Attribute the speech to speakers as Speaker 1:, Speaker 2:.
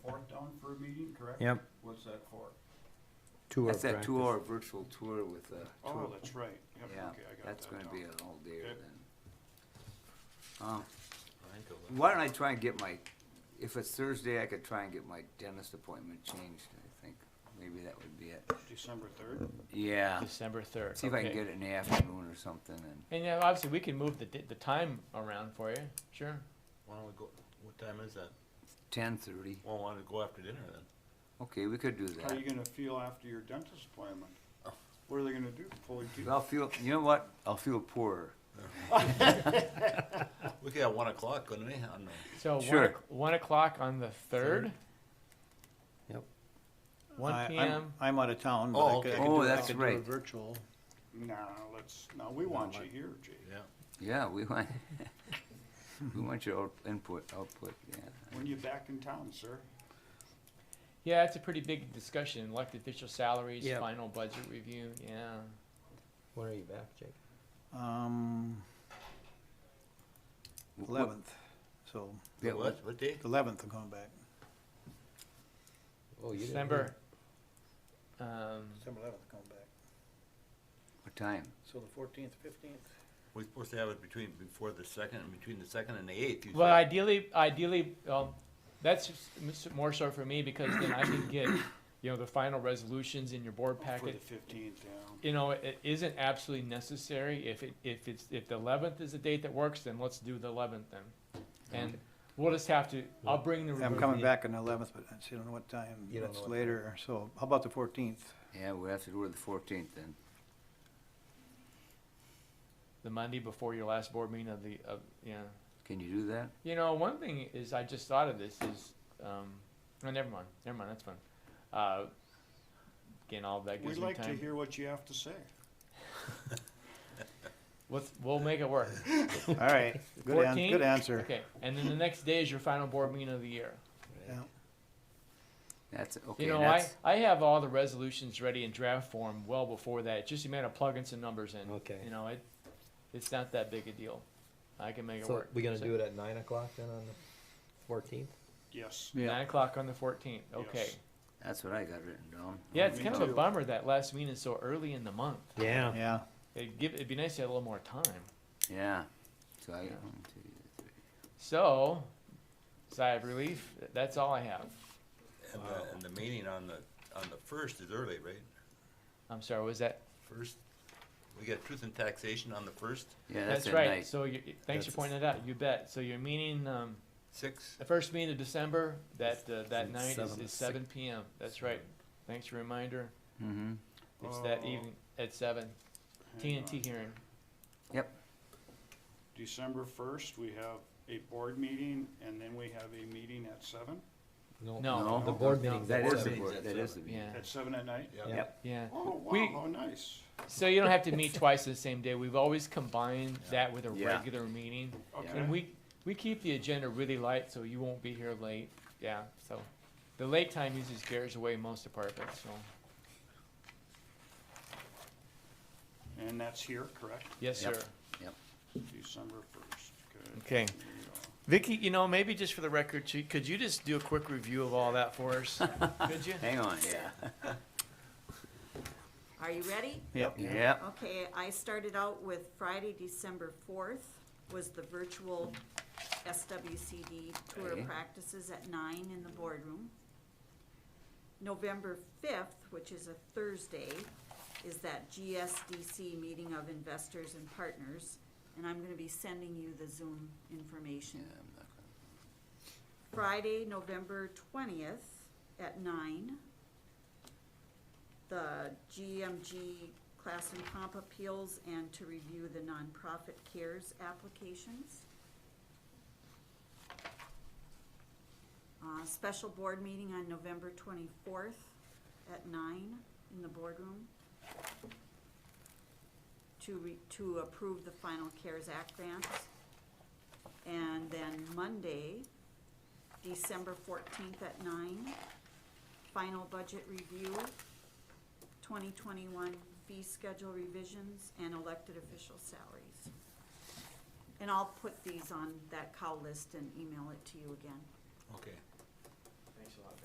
Speaker 1: meeting, correct?
Speaker 2: Yep,
Speaker 1: What's that for?
Speaker 2: tour
Speaker 3: That's that
Speaker 2: practice.
Speaker 3: two-hour virtual tour with the.
Speaker 1: Oh, that's right. Yep,
Speaker 3: Yeah,
Speaker 1: okay, I got
Speaker 3: that's
Speaker 1: that
Speaker 3: gonna
Speaker 1: down.
Speaker 3: be a whole day
Speaker 1: Yep.
Speaker 3: then. Uh, Why don't I try and get my, if it's Thursday, I could try and get my dentist appointment changed, I think. Maybe that would be it.
Speaker 1: December third?
Speaker 2: Ah.
Speaker 3: Yeah,
Speaker 4: December third.
Speaker 3: see if I can get it in the afternoon or something and,
Speaker 4: And yeah, obviously we can move the di- the time around for you. Sure.
Speaker 5: Why don't we go, what time is that?
Speaker 3: ten-thirty.
Speaker 5: Well, why don't we go after dinner then?
Speaker 3: Okay, we could do
Speaker 1: How are
Speaker 3: that.
Speaker 1: you gonna feel after your dentist appointment?
Speaker 3: Oh.
Speaker 1: What are they gonna do, pull your teeth?
Speaker 3: I'll feel, you know what? I'll feel poorer.
Speaker 5: We could have one o'clock, couldn't we? I don't know.
Speaker 4: So
Speaker 3: Sure.
Speaker 4: one, o'c- one o'clock on the third.
Speaker 2: Yep.
Speaker 4: One
Speaker 6: I-
Speaker 4: p.m.
Speaker 6: I'm- I'm out of town, but
Speaker 5: Oh,
Speaker 6: I could, I
Speaker 5: okay.
Speaker 6: could do
Speaker 3: Oh,
Speaker 6: it- I
Speaker 3: that's
Speaker 6: could do a
Speaker 3: right.
Speaker 6: virtual.
Speaker 1: Nah, let's, no, we want you here, Jake.
Speaker 5: Yeah.
Speaker 3: Yeah, we want, we want your out- input, output, yeah.
Speaker 1: When you back in town, sir?
Speaker 4: Yeah, it's a pretty big discussion. Elected official salaries,
Speaker 2: Yeah.
Speaker 4: final budget review. Yeah.
Speaker 2: When are you back, Jake?
Speaker 6: Um,
Speaker 3: Wh- wh-
Speaker 6: eleventh, so,
Speaker 3: Yeah,
Speaker 5: What, what day?
Speaker 6: eleventh I'm going back.
Speaker 2: Oh, you didn't
Speaker 4: December. Um,
Speaker 6: December eleventh I'm going back.
Speaker 3: What time?
Speaker 6: So the fourteenth, fifteenth?
Speaker 5: We're supposed to have it between, before the second, and between the second and the eighth. you
Speaker 4: well,
Speaker 5: said.
Speaker 4: ideally, ideally, um, that's just m- s- more so for me because then I can get you know the final resolutions in your board
Speaker 1: For the
Speaker 4: packet
Speaker 1: fifteenth, yeah.
Speaker 4: you know, it isn't absolutely necessary. If it, if it's, if the eleventh is the date that works, then let's do the eleventh then. And we'll just have to, I'll bring the.
Speaker 6: I'm
Speaker 4: the-
Speaker 6: coming back on the eleventh, but I still don't know what time,
Speaker 2: You don't know
Speaker 6: it's
Speaker 2: what time.
Speaker 6: later, so how about the fourteenth?
Speaker 3: Yeah, we have to do it the fourteenth then.
Speaker 4: The Monday before your last board meeting of the, of, yeah.
Speaker 3: Can you do that?
Speaker 4: You know, one thing is, I just thought of this is, um, oh, never mind, never mind, that's fine. Uh, again, all that
Speaker 1: We'd
Speaker 4: gives me
Speaker 1: like to
Speaker 4: time.
Speaker 1: hear what you have to say.
Speaker 4: Let's, we'll make it work.
Speaker 6: All right, good an,
Speaker 4: 14th?
Speaker 6: good answer.
Speaker 4: Okay, and then the next day is your final board meeting of the year.
Speaker 6: Yeah.
Speaker 3: That's, okay,
Speaker 4: You know, I,
Speaker 3: that's,
Speaker 4: I have all the resolutions ready in draft form well before that. It's just a matter of plugging some numbers in.
Speaker 2: Okay.
Speaker 4: You know, it, it's not that big a deal. I can make it
Speaker 2: So
Speaker 4: work.
Speaker 2: we're gonna
Speaker 4: So
Speaker 2: do it at nine o'clock then on the fourteenth?
Speaker 1: Yes.
Speaker 4: Nine o'clock on the fourteenth, okay.
Speaker 1: Yes.
Speaker 3: that's what I got written down.
Speaker 4: Yeah, it's
Speaker 1: Me
Speaker 4: kind of a
Speaker 1: too.
Speaker 4: bummer that last meeting is so early in the month.
Speaker 2: Yeah.
Speaker 6: Yeah,
Speaker 4: It'd give, it'd be nice to have a little more time.
Speaker 3: Oh, Yeah. So I,
Speaker 4: Yeah.
Speaker 3: one, two, three.
Speaker 4: So, sigh of relief, that's all I have.
Speaker 5: And the, and the meeting on the, on the first is early, right?
Speaker 4: I'm sorry, was that,
Speaker 5: First, we got truth and taxation on the first,
Speaker 3: yeah, that's
Speaker 4: that's
Speaker 3: at
Speaker 4: right,
Speaker 3: night.
Speaker 4: so you, thanks for
Speaker 2: That's-
Speaker 4: pointing that out, you bet. So your meeting, um,
Speaker 5: six,
Speaker 4: The first meeting of December, that, uh, that
Speaker 2: It's
Speaker 4: night is,
Speaker 2: seven to
Speaker 4: is
Speaker 2: six.
Speaker 4: seven PM, that's right. Thanks for reminder,
Speaker 3: Mm-hmm.
Speaker 4: it's that
Speaker 1: Oh.
Speaker 4: evening at seven,
Speaker 1: Hang on.
Speaker 4: TNT hearing.
Speaker 1: December first, we have a board meeting, and then we have a meeting at seven,
Speaker 4: No,
Speaker 3: No.
Speaker 2: The board
Speaker 4: No.
Speaker 2: meeting's
Speaker 3: That
Speaker 2: at
Speaker 3: is
Speaker 5: board
Speaker 3: the
Speaker 2: seven.
Speaker 5: meeting's
Speaker 3: board,
Speaker 5: at
Speaker 3: that is the
Speaker 5: seven.
Speaker 3: meeting.
Speaker 4: yeah,
Speaker 1: at seven at night?
Speaker 5: yeah.
Speaker 3: Yep,
Speaker 4: yeah.
Speaker 1: Oh, wow,
Speaker 4: We-
Speaker 1: how nice.
Speaker 4: So you don't have to meet twice the same day, we've always combined that with a
Speaker 3: Yeah.
Speaker 4: regular meeting.
Speaker 1: Okay.
Speaker 4: And we, we keep the agenda really light, so you won't be here late, yeah, so. The late time usually scares away most departments, so,
Speaker 1: And that's here, correct?
Speaker 4: yes,
Speaker 3: Yep.
Speaker 4: sir.
Speaker 1: December first, okay.
Speaker 4: Okay. Vicky, you know, maybe just for the record, she- could you just do a quick review of all that for us? Could you?
Speaker 3: hang on, yeah.
Speaker 7: Are you ready?
Speaker 6: yep.
Speaker 3: Yep,
Speaker 7: Okay, I started out with Friday, December fourth was the virtual SWCD tour
Speaker 3: Okay.
Speaker 7: of practices at nine in the boardroom. November fifth, which is a Thursday, is that GSDC meeting of investors and partners. And I'm gonna be sending you the Zoom information.
Speaker 3: Yeah, I'm not gonna-
Speaker 7: Friday, November twentieth at nine. The GMG class and comp appeals and to review the nonprofit cares applications. Uh, special board meeting on November twenty-fourth at nine in the boardroom. To re, to approve the final CARES Act grants. And then Monday, December fourteenth at nine. Final budget review, twenty twenty-one fee schedule revisions, and elected official salaries. And I'll put these on that cow list and email it to you again.
Speaker 5: okay.